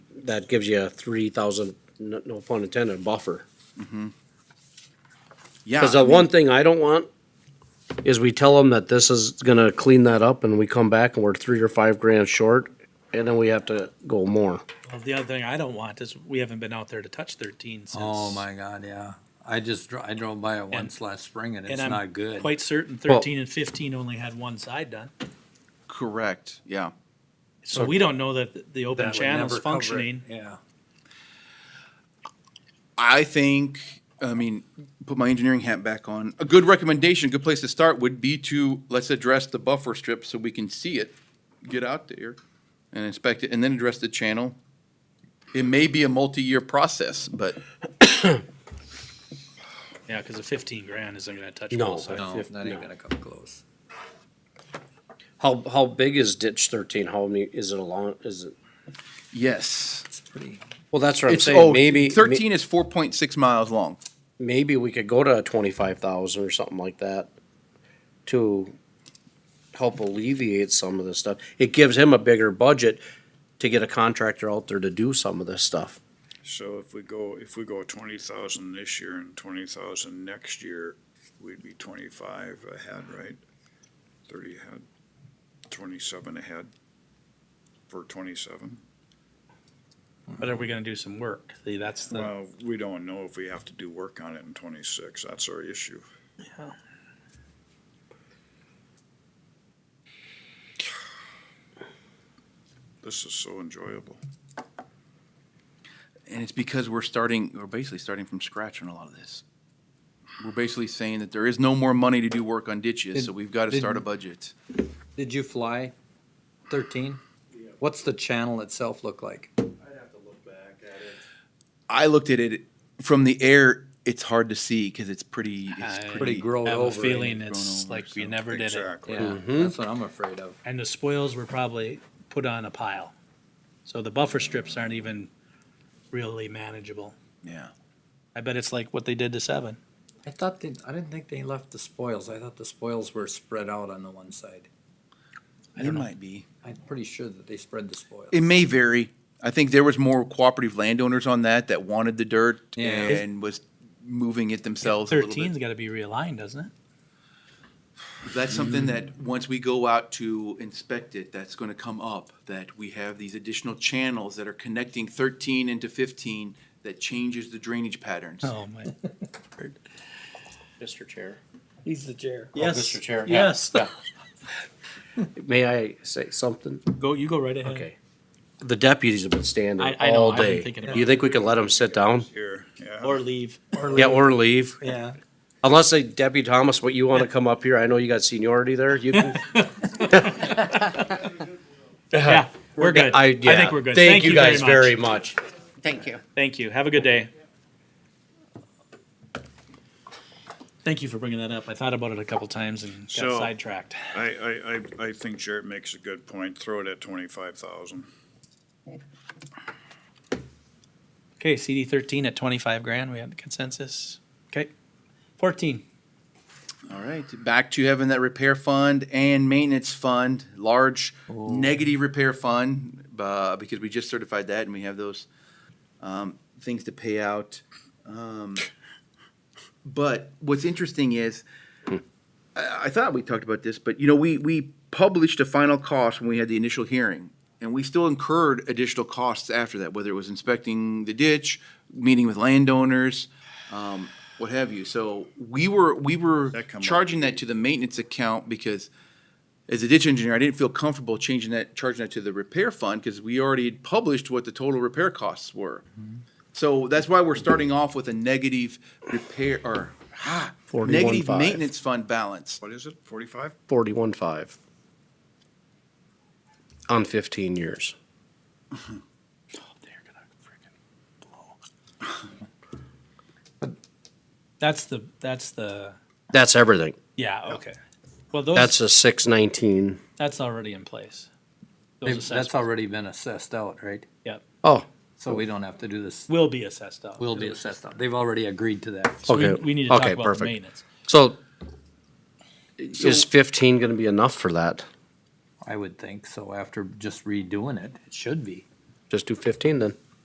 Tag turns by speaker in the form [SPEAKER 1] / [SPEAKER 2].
[SPEAKER 1] that gives you a three thousand, no no pun intended, buffer.
[SPEAKER 2] Yeah.
[SPEAKER 1] Cause
[SPEAKER 2] I
[SPEAKER 1] the
[SPEAKER 2] mean,
[SPEAKER 1] one thing Ah, I don't want is we tell them that this is gonna clean that up and we come back and we're three or five grand short and then we have to go more.
[SPEAKER 3] Well, the other thing I don't want is we haven't been out there to touch thirteen since.
[SPEAKER 4] Oh my God, yeah. I just, dro- I drove by it once last spring and
[SPEAKER 3] And
[SPEAKER 4] it's
[SPEAKER 3] I'm
[SPEAKER 4] not good.
[SPEAKER 3] Quite certain thirteen and fifteen only had one side done.
[SPEAKER 2] Correct, yeah.
[SPEAKER 3] So we don't know that the- the
[SPEAKER 4] That
[SPEAKER 3] open
[SPEAKER 4] would
[SPEAKER 3] channel's
[SPEAKER 4] never cover it.
[SPEAKER 3] functioning.
[SPEAKER 4] Yeah.
[SPEAKER 2] I think, I mean, put my engineering hat back on. A good recommendation, a good place to start would be to, let's address the buffer strip so we can see it, get out there and inspect it, and then address the channel. It may be a multi-year process, but
[SPEAKER 3] Yeah, cause the fifteen grand isn't gonna touch
[SPEAKER 1] No.
[SPEAKER 3] both sides.
[SPEAKER 4] No,
[SPEAKER 1] If-
[SPEAKER 4] not even
[SPEAKER 1] no.
[SPEAKER 4] gonna come close.
[SPEAKER 1] How, how big is ditch thirteen? How many, is it along, is it?
[SPEAKER 2] yes.
[SPEAKER 4] It's pretty,
[SPEAKER 1] Well, that's what I'm
[SPEAKER 2] It's,
[SPEAKER 1] saying,
[SPEAKER 2] oh,
[SPEAKER 1] maybe.
[SPEAKER 2] thirteen is four point six miles long.
[SPEAKER 1] maybe we could go to twenty-five thousand or something like that to help alleviate some of this stuff. It gives him a bigger budget to get a contractor out there to do some of this stuff.
[SPEAKER 5] So if we go, if we go twenty thousand this year and twenty thousand next year, we'd be twenty-five ahead, right? Thirty ahead, twenty-seven ahead for twenty-seven.
[SPEAKER 3] But are we gonna do some work? See, that's the,
[SPEAKER 5] Well, we don't know if we have to do work on it in twenty-six. That's our issue. This is so enjoyable.
[SPEAKER 2] And it's because we're starting, we're basically starting from scratch on a lot of this. We're basically saying that there is no more money to do work on ditches, so we've got to start a budget.
[SPEAKER 4] did you fly thirteen? What's the channel itself look like?
[SPEAKER 2] I looked at it from the air. It's hard to see because it's pretty. It's
[SPEAKER 3] I
[SPEAKER 2] pretty.
[SPEAKER 4] Pretty grown
[SPEAKER 3] have
[SPEAKER 4] over.
[SPEAKER 3] a
[SPEAKER 4] and
[SPEAKER 3] feeling
[SPEAKER 2] grown
[SPEAKER 3] it's
[SPEAKER 2] over,
[SPEAKER 3] like we
[SPEAKER 2] so-
[SPEAKER 3] never did it.
[SPEAKER 5] Exactly.
[SPEAKER 4] Yeah, that's what I'm afraid of.
[SPEAKER 3] And the spoils were probably put on a pile. So the buffer strips aren't even really manageable.
[SPEAKER 2] yeah.
[SPEAKER 3] I bet it's like what they did to seven.
[SPEAKER 4] I thought they, I didn't think they left the spoils. I thought the spoils were spread out on the one side.
[SPEAKER 2] It might be.
[SPEAKER 4] I'm pretty sure that they spread the spoils.
[SPEAKER 2] It may vary. I think there was more cooperative landowners on that that wanted the dirt
[SPEAKER 4] Yeah.
[SPEAKER 2] and was moving it themselves. a little bit.
[SPEAKER 3] Thirteen's gotta be realigned, doesn't it?
[SPEAKER 2] That's something that, once we go out to inspect it, that's gonna come up, that we have these additional channels that are connecting thirteen into fifteen that changes the drainage patterns.
[SPEAKER 3] Oh, my.
[SPEAKER 1] Mr. Chair.
[SPEAKER 3] He's the chair.
[SPEAKER 1] Yes. Mr. Chair, yeah,
[SPEAKER 3] Yes.
[SPEAKER 1] May I say something?
[SPEAKER 3] Go, you go right ahead.
[SPEAKER 1] Okay. The deputies have been standing
[SPEAKER 3] I- I know,
[SPEAKER 1] all
[SPEAKER 3] I've been
[SPEAKER 1] day.
[SPEAKER 3] thinking about
[SPEAKER 1] You think we could let them sit down?
[SPEAKER 5] Here, yeah.
[SPEAKER 3] Or leave.
[SPEAKER 1] Yeah, or leave?
[SPEAKER 4] Yeah.
[SPEAKER 1] Unless they, Deputy Thomas, what, you wanna come up here? I know you got seniority there. You can,
[SPEAKER 3] Yeah, we're good.
[SPEAKER 1] I,
[SPEAKER 3] I
[SPEAKER 1] yeah.
[SPEAKER 3] think we're good.
[SPEAKER 1] Thank you guys very
[SPEAKER 3] very much.
[SPEAKER 1] much.
[SPEAKER 6] Thank you.
[SPEAKER 3] Thank you. Have a good day. Thank you for bringing that up. I thought about it a couple times and got
[SPEAKER 5] So-
[SPEAKER 3] sidetracked.
[SPEAKER 5] I, I, I, I think Jared makes a good point. Throw it at twenty-five thousand.
[SPEAKER 3] Okay, CD thirteen at twenty-five grand. We had consensus. Okay. Fourteen.
[SPEAKER 2] All right, back to having that repair fund and maintenance fund, large negative repair fund, uh, because we just certified that and we have those, um, things to pay out. Um, But what's interesting is, I, I thought we talked about this, but you know, we, we published a final cost when we had the initial hearing. And we still incurred additional costs after that, whether it was inspecting the ditch, meeting with landowners, um, what have you. So we were, we were
[SPEAKER 5] That come up.
[SPEAKER 2] charging that to the maintenance account because as a ditch engineer, I didn't feel comfortable changing that, charging that to the repair fund because we already had published what the total repair costs were. So that's why we're starting off with a negative repair or ah, negative
[SPEAKER 1] 41.5.
[SPEAKER 2] maintenance fund balance.
[SPEAKER 5] What is it, forty-five?
[SPEAKER 1] Forty-one five. On fifteen years.
[SPEAKER 3] Oh, They're gonna freaking blow. That's the, that's the,
[SPEAKER 1] That's everything.
[SPEAKER 3] yeah, okay. Well, those,
[SPEAKER 1] That's a six nineteen.
[SPEAKER 3] that's already in place. Those
[SPEAKER 4] That's
[SPEAKER 3] assessments
[SPEAKER 4] already been assessed out, right?
[SPEAKER 1] Oh,
[SPEAKER 4] So we don't have to do this.
[SPEAKER 3] will be assessed out.
[SPEAKER 4] Will be assessed out. They've already agreed to that.
[SPEAKER 3] So we-
[SPEAKER 1] Okay.
[SPEAKER 3] We need to talk
[SPEAKER 1] Okay,
[SPEAKER 3] about the
[SPEAKER 1] perfect.
[SPEAKER 3] maintenance.
[SPEAKER 1] so is fifteen gonna be enough for that?
[SPEAKER 4] I would think so after just redoing it, it should be.
[SPEAKER 1] Just do fifteen then.